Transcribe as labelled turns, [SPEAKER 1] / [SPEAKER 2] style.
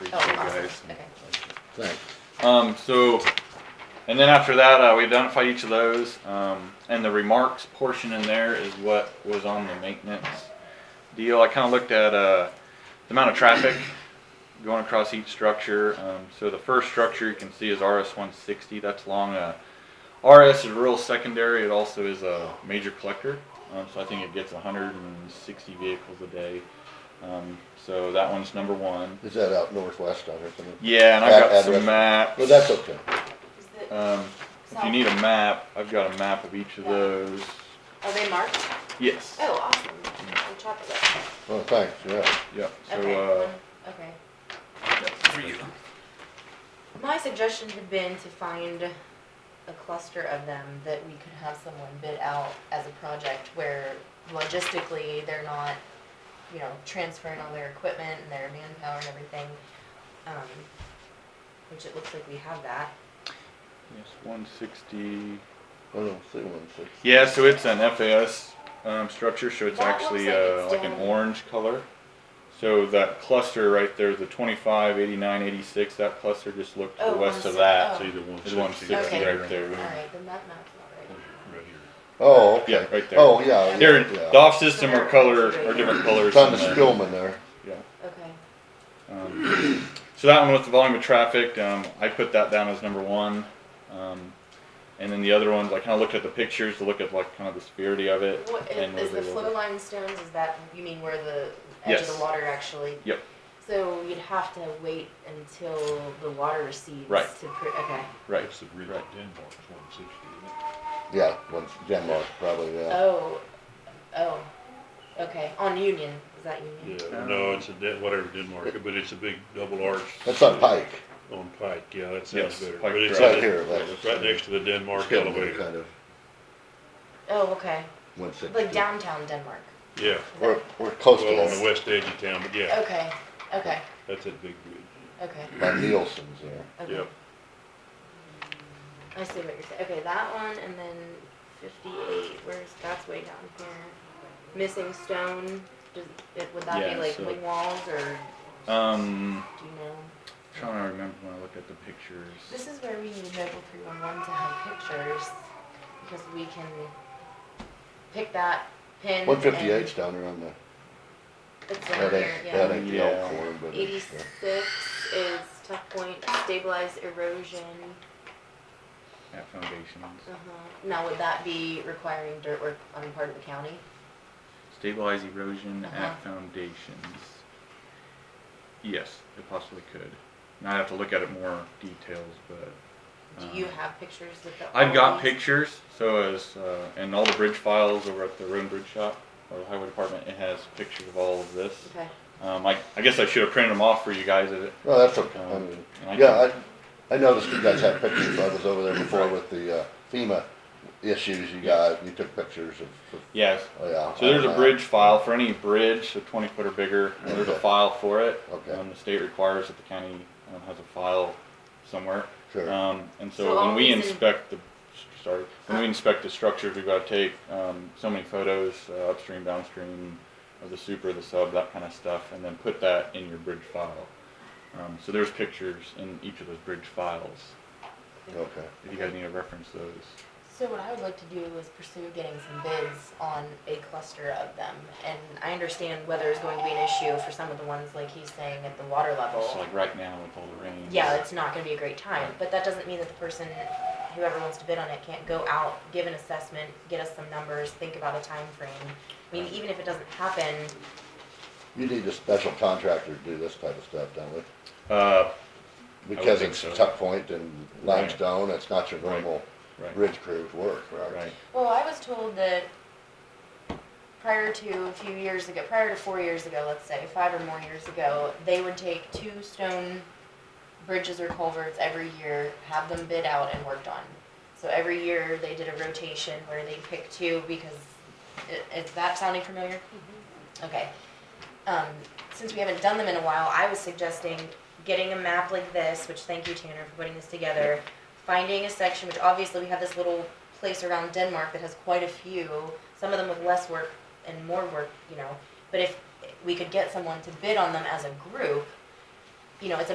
[SPEAKER 1] first, Oh, okay.
[SPEAKER 2] Thanks.
[SPEAKER 3] Um, so, and then after that, uh, we identified each of those, um, and the remarks portion in there is what was on the maintenance deal. I kind of looked at uh, the amount of traffic going across each structure. Um, so the first structure you can see is RS 160. That's long. Uh, RS is rural secondary. It also is a major collector. Um, so I think it gets 160 vehicles a day. Um, so that one's number one.
[SPEAKER 2] Is that out northwest on there somewhere?
[SPEAKER 3] Yeah, and
[SPEAKER 2] That
[SPEAKER 3] I've got
[SPEAKER 2] address.
[SPEAKER 3] some maps.
[SPEAKER 2] Well, that's okay.
[SPEAKER 1] Is the-
[SPEAKER 3] Um, if you need a map, I've got a map of each of those.
[SPEAKER 1] Are they marked?
[SPEAKER 3] Yes.
[SPEAKER 1] Oh, awesome. On top of that.
[SPEAKER 2] Well, Oh, thanks, yeah.
[SPEAKER 3] Yeah, so,
[SPEAKER 1] Okay,
[SPEAKER 3] uh,
[SPEAKER 1] one- okay. My suggestion had been to find a cluster of them that we could have someone bid out as a project where logistically, they're not, you know, transferring all their equipment and their manpower and everything. Um, Which it looks like we have that.
[SPEAKER 3] yes, one sixty.
[SPEAKER 2] I don't Oh, see one six.
[SPEAKER 3] Yeah, so it's an FAS, um, structure, so it's
[SPEAKER 1] That looks
[SPEAKER 3] actually,
[SPEAKER 1] like
[SPEAKER 3] uh,
[SPEAKER 1] it's
[SPEAKER 3] like an
[SPEAKER 1] down.
[SPEAKER 3] orange color. So that cluster right there, the twenty-five, eighty-nine, eighty-six, that cluster just looked to
[SPEAKER 1] Oh,
[SPEAKER 3] the west of
[SPEAKER 1] 160,
[SPEAKER 3] that.
[SPEAKER 1] oh.
[SPEAKER 4] See the one
[SPEAKER 3] It's one
[SPEAKER 4] sixty
[SPEAKER 3] sixty
[SPEAKER 4] right
[SPEAKER 1] Okay.
[SPEAKER 3] right
[SPEAKER 4] there.
[SPEAKER 3] there.
[SPEAKER 1] Alright, then that map's not right.
[SPEAKER 3] Mm-hmm.
[SPEAKER 4] Right here.
[SPEAKER 2] Oh, okay.
[SPEAKER 3] Yeah, right there.
[SPEAKER 2] Oh, yeah.
[SPEAKER 3] They're,
[SPEAKER 2] yeah.
[SPEAKER 3] the off system are color, are different colors.
[SPEAKER 2] It's on
[SPEAKER 3] in
[SPEAKER 2] the
[SPEAKER 3] there.
[SPEAKER 2] Spillman there.
[SPEAKER 3] Yeah.
[SPEAKER 1] Okay.
[SPEAKER 3] Um, So that one with the volume of traffic, um, I put that down as number one. Um, and then the other ones, I kinda looked at the pictures to look at like kind of the severity of it.
[SPEAKER 1] What,
[SPEAKER 3] and
[SPEAKER 1] is
[SPEAKER 3] where
[SPEAKER 1] the
[SPEAKER 3] they were.
[SPEAKER 1] flow line stones, is that, you mean where the edge of
[SPEAKER 3] Yes.
[SPEAKER 1] the water actually?
[SPEAKER 3] Yep.
[SPEAKER 1] So you'd have to wait until the water recedes
[SPEAKER 3] Right.
[SPEAKER 1] to, pre- okay,
[SPEAKER 3] Right,
[SPEAKER 4] That's the bridge at
[SPEAKER 3] Right.
[SPEAKER 4] Denmark's one sixty, isn't it?
[SPEAKER 2] Yeah, one, Denmark, probably, yeah.
[SPEAKER 1] oh, oh, okay, on Union, is that Union?
[SPEAKER 4] Yeah, no, it's a, de- whatever, Denmark, but it's a big double arch.
[SPEAKER 2] That's on Pike.
[SPEAKER 4] On Pike, yeah, that sounds
[SPEAKER 3] Yes,
[SPEAKER 4] better.
[SPEAKER 3] Pike
[SPEAKER 4] But it's
[SPEAKER 3] Drive.
[SPEAKER 4] in
[SPEAKER 2] Right here,
[SPEAKER 4] the-
[SPEAKER 2] right.
[SPEAKER 4] it's Right next to the Denmark
[SPEAKER 2] Spillman,
[SPEAKER 4] elevator.
[SPEAKER 2] Kind of,
[SPEAKER 1] Oh, okay,
[SPEAKER 2] one six.
[SPEAKER 1] like downtown Denmark,
[SPEAKER 4] Yeah,
[SPEAKER 2] We're, we're close
[SPEAKER 4] well, on the
[SPEAKER 2] to
[SPEAKER 4] west edge of town, but yeah,
[SPEAKER 1] okay, okay,
[SPEAKER 4] that's that big bridge.
[SPEAKER 1] okay,
[SPEAKER 2] that. By Nielsen's there.
[SPEAKER 1] okay.
[SPEAKER 4] Yep.
[SPEAKER 1] I see what you're saying, okay, that one, and then fifty-eight, where's, that's way down here, missing stone, does, it, would that
[SPEAKER 3] Yeah,
[SPEAKER 1] be like
[SPEAKER 3] so-
[SPEAKER 1] wing walls, or
[SPEAKER 3] um,
[SPEAKER 1] do you know?
[SPEAKER 3] trying to remember when I looked at the
[SPEAKER 1] This
[SPEAKER 3] pictures.
[SPEAKER 1] is where we need mobile three one one to have pictures, because we can pick that pin.
[SPEAKER 2] One fifty-eight's down there on the,
[SPEAKER 1] and It's down
[SPEAKER 2] that
[SPEAKER 1] here,
[SPEAKER 2] ain't, that
[SPEAKER 1] yeah.
[SPEAKER 2] ain't the old
[SPEAKER 3] Yeah.
[SPEAKER 2] corn, but it's,
[SPEAKER 1] Eighty-six is tough point, stabilize erosion,
[SPEAKER 3] At foundations.
[SPEAKER 1] uh-huh. Now, would that be requiring dirt work on the part of the county?
[SPEAKER 3] Stabilize erosion
[SPEAKER 1] Uh-huh.
[SPEAKER 3] at foundations. Yes, it possibly could. And I'd have to look at it more details, but.
[SPEAKER 1] Do you
[SPEAKER 3] um,
[SPEAKER 1] have pictures with the?
[SPEAKER 3] I've got
[SPEAKER 1] all these?
[SPEAKER 3] pictures, so as, uh, and all the bridge files over at the road and bridge shop, or the highway department, it has pictures of all of this.
[SPEAKER 1] Okay,
[SPEAKER 3] Um, I, I guess I should have printed them off for you guys, is it?
[SPEAKER 2] no, Oh, that's okay. I
[SPEAKER 3] Um,
[SPEAKER 2] mean,
[SPEAKER 3] and I
[SPEAKER 2] Yeah, I, I noticed you guys had pictures, I was over there before with the uh, FEMA issues you got, you took pictures of, of-
[SPEAKER 3] Yes,
[SPEAKER 2] oh, yeah.
[SPEAKER 3] so there's a
[SPEAKER 2] Uh,
[SPEAKER 3] bridge file for any bridge, so twenty foot or bigger, and there's a
[SPEAKER 2] Okay.
[SPEAKER 3] file for it.
[SPEAKER 2] Okay.
[SPEAKER 3] Um, the state requires that the county, um, has a file somewhere.
[SPEAKER 2] Sure,
[SPEAKER 3] Um, and
[SPEAKER 1] So
[SPEAKER 3] so when we
[SPEAKER 1] all these in-
[SPEAKER 3] inspect the, sorry, when we inspect the structures, we've gotta take, um, so many photos, uh, upstream, downstream, of the super, the sub, that kinda stuff, and then put that in your bridge file. Um, so there's pictures in each of those bridge files,
[SPEAKER 2] okay.
[SPEAKER 3] if you guys need to reference those.
[SPEAKER 1] so what I would like to do is pursue getting some bids on a cluster of them, and I understand weather is going to be an issue for some of the ones, like he's saying, at the water level.
[SPEAKER 3] It's like right now with all the rain.
[SPEAKER 1] yeah, it's not gonna be a great time, but that doesn't mean that the person, whoever wants to bid on it, can't go out, give an assessment, get us some numbers, think about a time frame. I mean, even if it doesn't happen,
[SPEAKER 2] You need a special contractor to do this type of stuff, don't we?
[SPEAKER 3] Uh,
[SPEAKER 2] Because
[SPEAKER 3] think
[SPEAKER 2] it's
[SPEAKER 3] so.
[SPEAKER 2] tuck point and limestone, it's not your
[SPEAKER 3] Right.
[SPEAKER 2] normal
[SPEAKER 3] right,
[SPEAKER 2] bridge crew's work, right?
[SPEAKER 3] right,
[SPEAKER 1] well, I was told that prior to a few years ago, prior to four years ago, let's say, five or more years ago, they would take two stone bridges or culverts every year, have them bid out and worked on. So every year, they did a rotation where they picked two because, i- is that sounding familiar? Okay. Um, since we haven't done them in a while, I was suggesting getting a map like this, which thank you Tanner for putting this together. Finding a section, which obviously we have this little place around Denmark that has quite a few, some of them with less work and more work, you know. But if we could get someone to bid on them as a group, you know, it's a